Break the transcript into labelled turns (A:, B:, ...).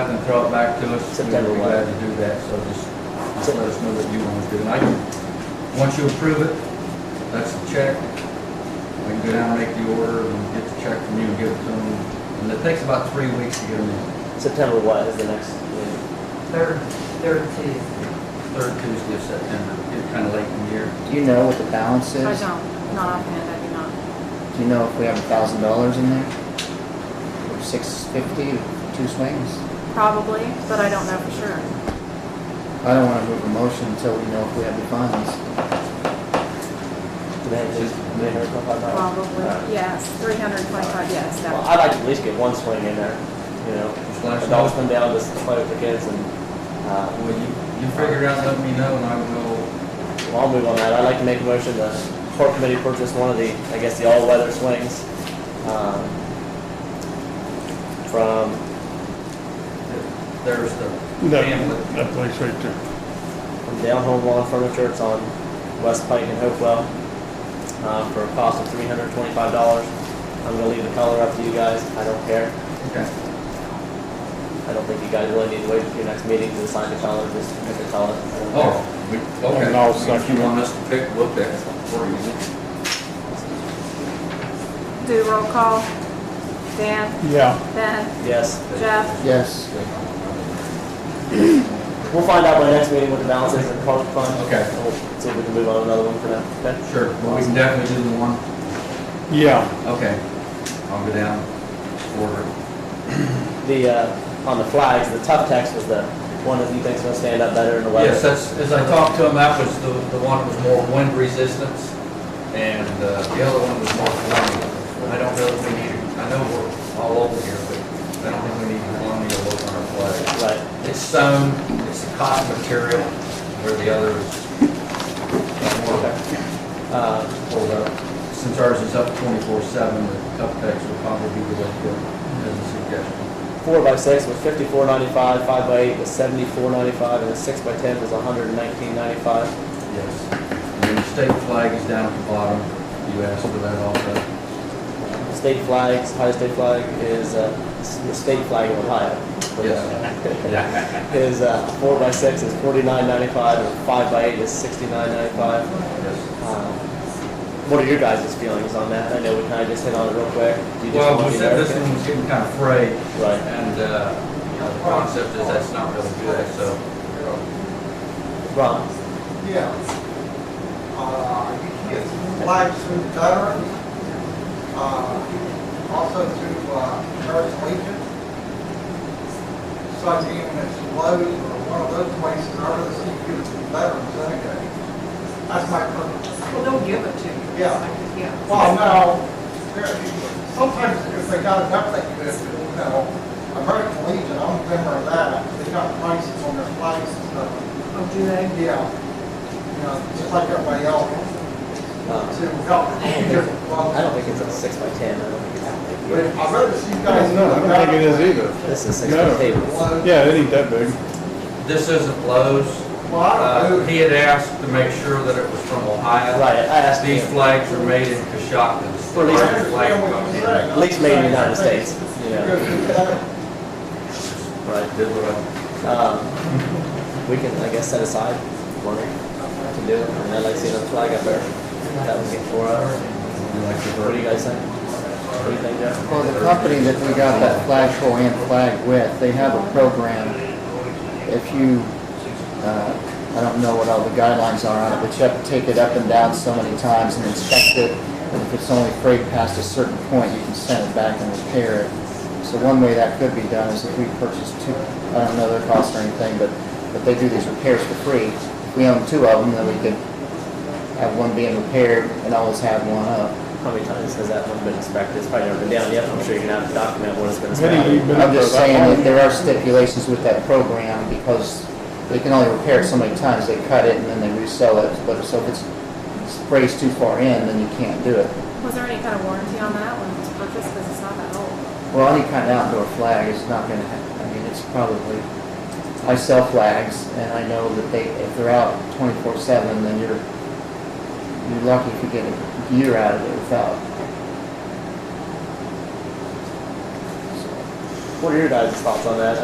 A: and throw it back to us. we would
B: September
A: be
B: what?
A: Glad to do that, so just, just let us know what you want to do. And I can, once you approve it, that's the check. I can go down and make the order and get the check from you and give it to them. And it takes about three weeks to get them in.
B: September what is the next meeting?
C: Third, third Tuesday.
A: Third Tuesday of September, get kind of late in the year.
D: Do you know what the balance
E: I
D: is?
E: don't, not offhand, I do not.
D: Do you know if we have a thousand dollars in there? Or six fifty, two swings?
E: Probably, but I don't know for sure.
D: I don't wanna move a motion until we know if we have the funds.
B: Do they have these- do they have a profile model? Alright.
E: Probably, yes, three hundred and twenty-five, yes,
B: Well,
E: definitely.
B: I'd like to at least get one swing in there, you know?
A: Just let us
B: Adults
A: know.
B: come down, just play with the kids and, uh,
A: Well, you, you figure it out, let me know, and I will
B: well, I'll move on that. I'd like to make a motion that court committee purchase one of the, I guess, the all-weather swings, um, from,
A: There's the
F: That,
A: bandwidth.
F: that place right there.
B: from Down Home Lawn Furniture. It's on West Pike in Hopewell, uh, for a cost of three hundred twenty-five dollars. I'm gonna leave the color up to you guys. I don't care.
A: Okay.
B: I don't think you guys really need to wait for your next meeting to decide the color, just pick a color. I don't care.
A: Oh, we, okay.
F: And I'll
A: If you
F: second
A: want us to pick, we'll pick for you.
E: Do roll call. Dan,
F: Yeah,
E: Ben,
B: Yes.
E: Jeff,
D: Yes,
B: We'll find out by next meeting what the balance is in park fund.
A: Okay.
B: And We'll see if we can move on to another one for now. Okay?
A: Sure, well, we can definitely do the one,
F: yeah,
A: okay. I'll go down, order.
B: The, uh, on the flags, the tough text was the one that you think's gonna stand up better in the weather.
A: Yes, that's, as I talked to him, that was the, the one that was more wind resistance, and, uh, the other one was more colonial. I don't know if we need, I know we're all over here, but I don't think we need colonial look on our flag.
B: Right.
A: It's sewn, it's a cotton material, where the other is more
B: Uh,
A: pulled up. Since ours is up twenty-four seven, the cup decks will probably be the way to go, as a suggestion.
B: four by six was fifty-four ninety-five, five by eight was seventy-four ninety-five, and the six by ten was hundred and nineteen ninety-five.
A: Yes. And then the state flag is down at the bottom, you asked for that also.
B: The State flags, Ohio state flag is, uh, s- the state flag of Ohio.
A: Yeah.
B: Is, uh, four by six is forty-nine ninety-five, and five by eight is sixty-nine ninety-five.
A: Yes.
B: Um, What are your guys' feelings on that? I know we kind of just hit on it real quick. Do you just
A: Well,
B: want
A: we
B: to
A: said
B: be
A: this one was getting kind of frayed,
B: Right.
A: and, uh, you know, the concept is that's not really good, so.
B: Ron,
G: Yeah. Uh, you can get flags through veterans, uh, also through, uh, Harris Legion. So I mean, when it's Lowe's or one of those places, I really see you as veterans, anyway. That's my purpose.
C: Well, they'll give it to you.
G: Yeah.
C: Yeah.
G: Well, no, there- sometimes if they got enough, they could, you know, American Legion, I don't remember that, they got prices on their flags and stuff.
C: Oh, do they?
G: Yeah, you know, just like everybody else.
B: um,
G: to help.
B: I don't think it's a six by ten, I don't think it's that
G: But
B: big.
G: I'd rather see you
F: I
G: guys.
F: don't know, I don't think it is either.
B: This is six by
F: No.
B: tables.
F: Yeah, it ain't that big.
A: This isn't Lowe's.
G: Well, I
A: Uh,
G: don't know.
A: He had asked to make sure that it was from Ohio.
B: Right, I asked
A: These
B: him.
A: flags are made in Coshocton.
B: For these-
G: I
A: Flag
G: understand what
A: company.
G: you're saying.
B: At least made in the United States, you know. Right.
A: Did what I-
B: Um, we can, I guess, set aside money to do it, and I'd like to see another flag up there. That would get four hours.
A: you like the
B: What do
A: verdict?
B: you guys think? What do you think, Jeff?
D: well, the company that we got that flagpole and flag with, they have a program. If you, uh, I don't know what all the guidelines are on it, but you have to take it up and down so many times and inspect it. And if it's only frayed past a certain point, you can send it back and repair it. So one way that could be done is if we purchase two, I don't know their cost or anything, but, but they do these repairs for free. If we own two of them, then we could have one being repaired and always have one up.
B: How many times has that one been inspected? It's probably never been down yet, I'm sure you're gonna have to document what it's been
F: Vinny,
B: inspected.
F: you've been
D: I'm
F: up there
D: just saying
F: that
D: that
F: long?
D: there are stipulations with that program because they can only repair it so many times. They cut it and then they resell it, but so if it's sprays too far in, then you can't do it.
E: Was there any kind of warranty on that when it was purchased, because it's not that old?
D: Well, any kind of outdoor flag is not gonna ha I mean, it's probably, I sell flags and I know that they, if they're out twenty-four seven, then you're, you're lucky if you get a year out of it without.
B: What are your guys' thoughts on that?